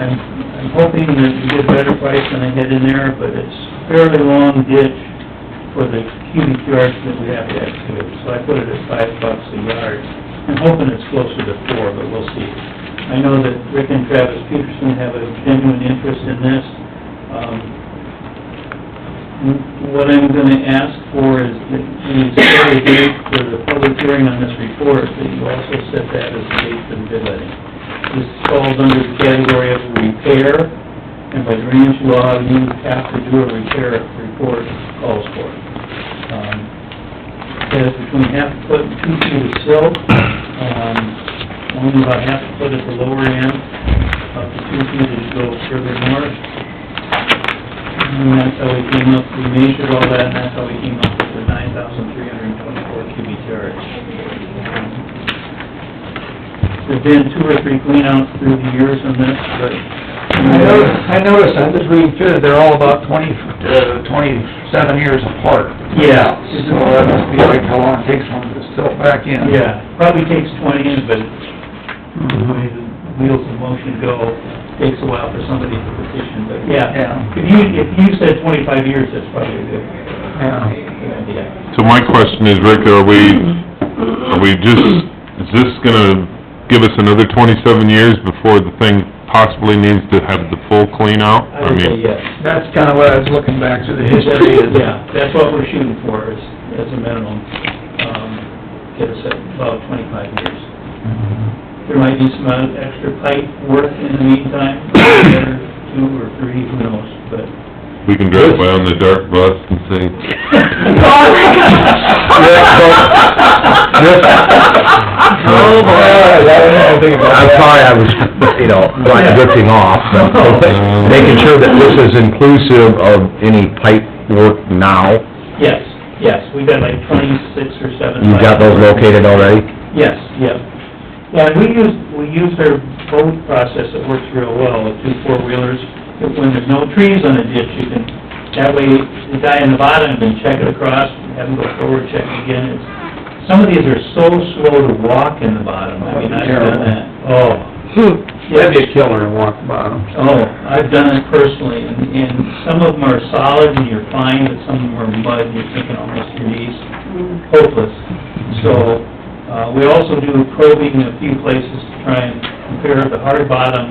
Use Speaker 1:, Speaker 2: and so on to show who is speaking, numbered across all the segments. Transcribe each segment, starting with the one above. Speaker 1: I'm, I'm hoping that we get a better price than I had in there, but it's fairly long ditch for the cubic yards that we have to excavate, so I put it at five bucks a yard. I'm hoping it's closer to four, but we'll see. I know that Rick and Travis Peterson have a genuine interest in this. Um, what I'm gonna ask for is that you set a date for the public hearing on this report, that you also set that as the date for the bid letting. This falls under the category of repair, and by drainage law, you have to do a repair if the report calls for it. Um, it Says between half a foot and two feet of silt, um, only about half a foot at the lower end, up to two feet as you go further north. And that's how we came up, we measured all that, and that's how we came up with the nine thousand three hundred and twenty-four cubic yards. There've been two or three cleanouts through the years on this, but...
Speaker 2: I noticed, I noticed, I'm just reading through it, they're all about twenty, uh, twenty-seven years apart.
Speaker 1: Yeah.
Speaker 2: So that must be like how long it takes one to fill back in.
Speaker 1: Yeah, probably takes twenty, but the way the wheels of motion go, takes a while for somebody to petition, but yeah.
Speaker 2: Yeah,
Speaker 1: If you, if you said twenty-five years, that's probably a good,
Speaker 2: yeah.
Speaker 1: good idea.
Speaker 3: So my question is, Rick, are we, are we just, is this gonna give us another twenty-seven years before the thing possibly needs to have the full clean out?
Speaker 1: I would say
Speaker 3: mean,
Speaker 1: yes.
Speaker 2: That's kinda what I was looking back through the history is.
Speaker 1: Yeah, that's what we're shooting for, is, as a minimum, um, get us at about twenty-five years. There might be some other extra pipe work in the meantime, or two or three, who knows, but
Speaker 3: We can drive by on the dark bus and say,
Speaker 4: Oh, boy. I'm sorry, I was, you know, like ripping off, but making sure that this is inclusive of any pipe work now.
Speaker 1: yes, yes, we've got like twenty-six or seven.
Speaker 4: You've got those
Speaker 1: pipes.
Speaker 4: located already?
Speaker 1: Yes, yeah. Yeah, and we use, we use our boat process that works real well with two four-wheelers. If- When there's no trees on a ditch, you can, that way, the guy in the bottom can check it across, have him go forward, check it again. It's- Some of these are so slow to walk in the bottom, I mean, I've done that. Oh.
Speaker 2: That'd be a killer to walk bottom.
Speaker 1: Oh, I've done it personally, and, and some of them are solid and you're fine, but some of them are mud, and you're taking almost your knees, hopeless. So, uh, we also do probing in a few places to try and compare the hard bottom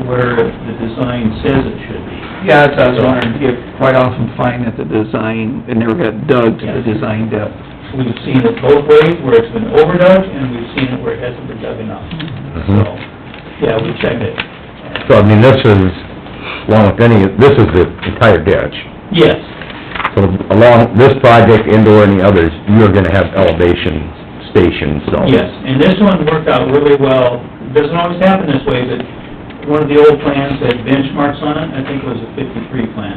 Speaker 1: to where the design says it should be.
Speaker 2: Yeah, that's what I was wondering, you quite often find that the design, it never got dug to the design depth.
Speaker 1: We've seen it both ways, where it's been overdug, and we've seen it where it hasn't been dug enough. So, yeah, we check it.
Speaker 4: So, I mean, this is, along with any, this is the entire ditch.
Speaker 1: Yes,
Speaker 4: So along this project, indoor and the others, you're gonna have elevation stations, so.
Speaker 1: Yes, and this one worked out really well. Doesn't always happen this way, but one of the old plans had benchmarks on it, I think it was a fifty-three plan.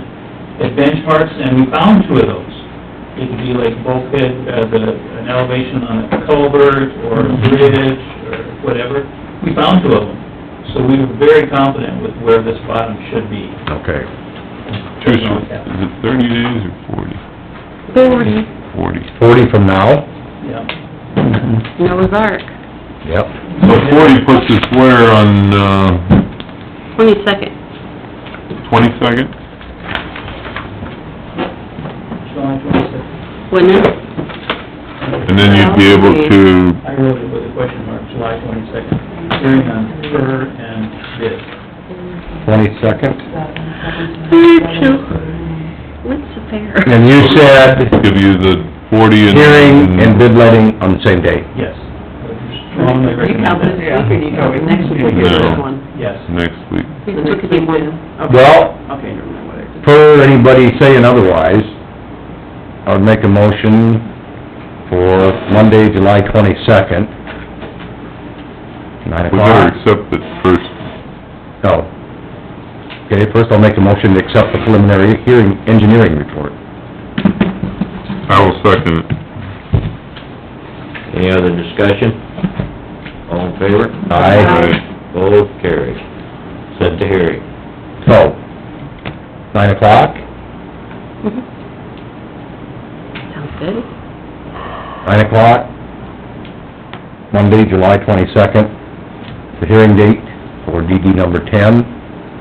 Speaker 1: Had benchmarks, and we found two of those. It could be like bulkhead, uh, the, an elevation on a culvert or a bridge or whatever. We found two of them. So we were very confident with where this bottom should be.
Speaker 4: Okay.
Speaker 3: two,
Speaker 1: Doesn't always happen.
Speaker 3: is it thirty days or forty?
Speaker 5: Forty,
Speaker 3: Forty.
Speaker 4: Forty from now?
Speaker 1: Yeah.
Speaker 5: Noah's Ark,
Speaker 4: Yep.
Speaker 3: So forty puts us where on, uh,
Speaker 5: twenty-second.
Speaker 3: twenty-second?
Speaker 1: July twenty-sixth.
Speaker 5: Wouldn't it?
Speaker 3: And then you'd be able to,
Speaker 1: I wrote it with a question mark, July twenty-second, hearing on fur and bid.
Speaker 4: Twenty-second?
Speaker 5: What's the fair?
Speaker 4: And you said
Speaker 3: give you the forty and...
Speaker 4: hearing and bid letting on the same day.
Speaker 1: Yes. Strongly recommend it.
Speaker 2: Yeah.
Speaker 6: week or do you go with next week?
Speaker 3: No.
Speaker 5: one?
Speaker 1: Yes.
Speaker 3: Next week.
Speaker 5: Look at the one.
Speaker 4: Well,
Speaker 6: Okay, never mind what I did.
Speaker 4: per anybody saying otherwise, I would make a motion for Monday, July twenty-second, nine
Speaker 3: We better
Speaker 4: o'clock.
Speaker 3: accept it first.
Speaker 4: No. Okay, first I'll make a motion to accept the preliminary hearing, engineering report.
Speaker 3: I will second it.
Speaker 7: Any other discussion? All in favor?
Speaker 4: Aye.
Speaker 7: Both carried. Set the hearing.
Speaker 4: So, nine o'clock,
Speaker 5: Mm-hmm. Sounds good.
Speaker 4: nine o'clock, Monday, July twenty-second, the hearing date for DD number ten,